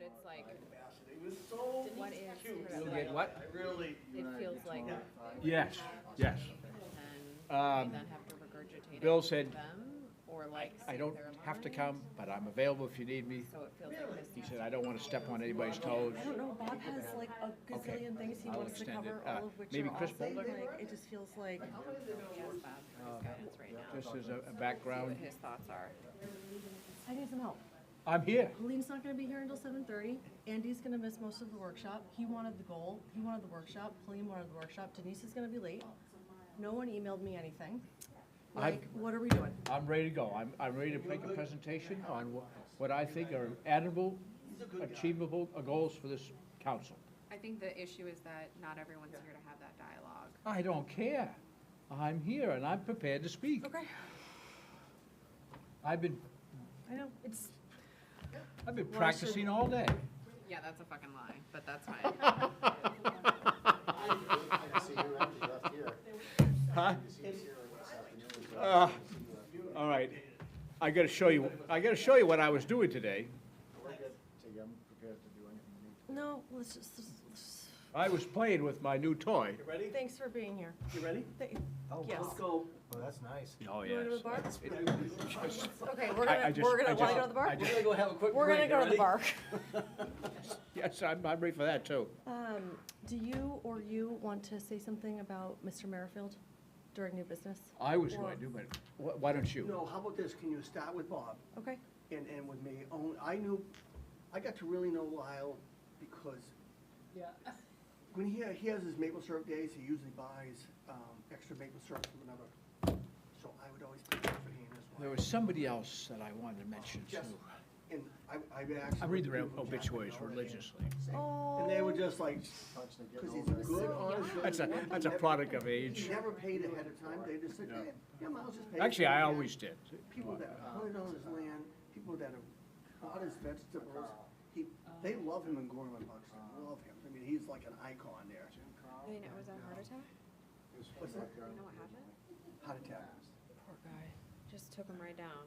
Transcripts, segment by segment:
it's like, Ambassador. It was so Denise texted cute. her You'll about get what? I really, It feels like. Yes, yes. And Um, then have to regurgitate. Bill it to said, them, Or like. I say don't their have to lines, come, but I'm available if you need me. So it feels like this. He said, I don't want to step on anybody's toes. I don't know, Bob has like a gazillion things he I'll wants to extend it. cover, Uh, all of which maybe are Chris also, Boulder? like, it just feels like, Yes, Bob, for his guidance right now. Um, Just um, as a- a See background, what his thoughts are. I need some help. I'm here. Lean's not gonna be here until seven thirty, Andy's gonna miss most of the workshop, he wanted the goal, he wanted the workshop, Helene wanted the workshop, Denise is gonna be late. No one emailed me anything. I've- Like, what are we doing? I'm ready to go. I'm, I'm ready to make a presentation on wh- what I think are admirable, achievable uh, goals for this council. I think the issue is that not everyone's here to have that dialogue. I don't care. I'm here and I'm prepared to speak. Okay. I've been, I know, it's, I've been Well, I should- practicing all day. Yeah, that's a fucking lie, but that's fine. Uh, All right, I gotta show you, I gotta show you what I was doing today. no, let's just, let's- let's- I was playing with my new toy. You ready? thanks for being here. You ready? Th- Oh, Yes. Let's go. Oh, that's nice. Oh, You wanna go to the bar? Okay, we're I- I gonna, just- we're I gonna, wanna just- go to the bar? I We're just- gonna go have a quick break. We're gonna go to the You ready? bar. Yes, I'm, I'm ready for that too. Um, do you or you want to say something about Mr. Merrifield during new business? I was going to, but wh- why don't you? No, how about this? Can you start with Bob? Okay, and, and with me, own, I knew, I got to really know Lyle because when he, he has his maple syrup days, he usually buys, um, extra maple syrup from another, so I would always pick up for him as well. There was somebody else that I wanted to mention too. Just, and I, I actually. I read the would do obituaries Jack McDowell. religiously. Oh. And they were just like, because he's a good, honest. That's a, businessman. that's a product of He age. never paid ahead of time, they just said, yeah, yeah, Miles just paid. Actually, I Yeah. always did. people that hunted on his land, people that have bought his vegetables, he, they love him in Gorman Buxton, love him. I mean, he's like an icon there. You know, it was a heart attack? What's that? You know what happened? Heart attack. Poor guy. Just took him right down.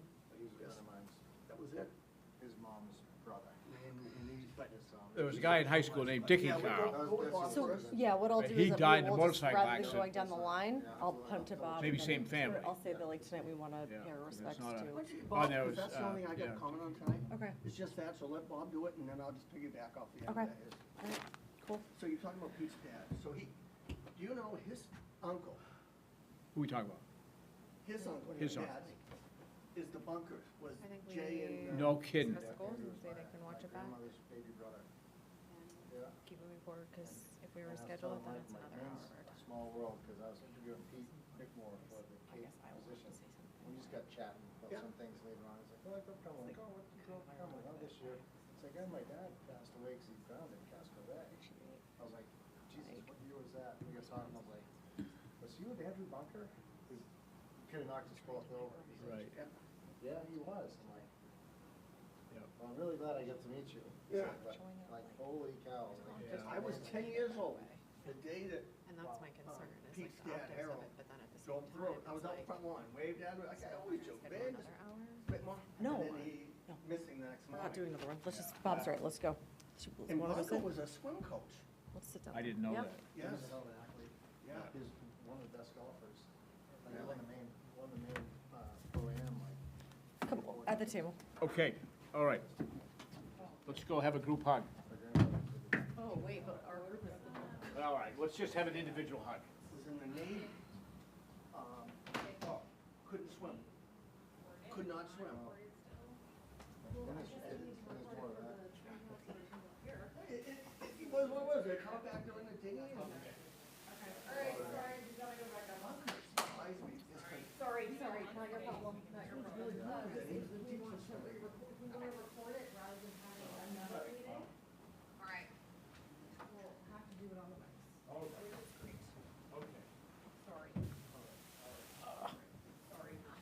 That was it. His mom's brother. And, and he, but, There was a guy in high school named Dickie yeah, we'll Carl. go, go with Bob so, first. yeah, what I'll do But is. he that we died in a will just- motorcycle rather than accident. Going down the line, I'll punt to Bob. Maybe and same then family. I'll say that like tonight we wanna Yeah, pay our it's respects not a- Why to. don't you, Oh, Bob, there 'cause was, that's the uh, only thing I yeah. got comment on tonight. Okay, It's just that, so let Bob do it and then I'll just piggyback off the end Okay. of that. all right, cool. So you're talking about Pete's dad. So he, do you know his uncle, Who we talking about? his uncle, His his dad, uncle. is the bunker, was I think Jay we- and. uh, No kidding. Discuss the goals and say they can watch it back and keep moving forward, because if we reschedule it, then it's another hour. of our time. Small world, because I was interviewing Pete Bickmore for the I Cape guess I will have to position. say something. We just got chatting about Yeah. some things later on. It's like, oh, I got Cromwell. Like, oh, what did you go to Cromwell? Oh, this year. It's like, oh, my dad passed away because he drowned in Casco Bay. I was like, Jesus, what year was that? We got talking, I was like, was you with Andrew Bunker? Because you could have knocked us both over. He's like, Right. Yeah, he was. I'm like, Yep. well, I'm really glad I get to meet you. Yeah. But, Like, holy cow. like, Yeah. just- I was ten years old, the day that And that's my concern, is like Pete's the dad, optics of Harold, it, but then at the same drove time, through, I it's was out like. front lawn, waved at him, like I always joke, schedule man, another hour? bit more. No, And then he no. missing the next We're not doing morning. another one, let's just, Bob's right, let's go. Shoot, you And wanna go Bronco sit? was a swim coach, Let's sit down. I didn't know Yeah. that. He yes, was a hell of an athlete. yeah. He was one of the best golfers. Like, he won the main, won the main, uh, pro am, like, Come, at the table. Okay, all right. Let's go have a group hug. my grandmother. Oh, wait, but our group is. All right, let's just have an individual hug. was in the Navy. Um, oh, couldn't swim, could not swim. And it's- it- it was more of that. It, it, it was what it was, they come back during the day and. Alright, sorry, you gotta go back up. Sorry, sorry, not your problem, not your problem.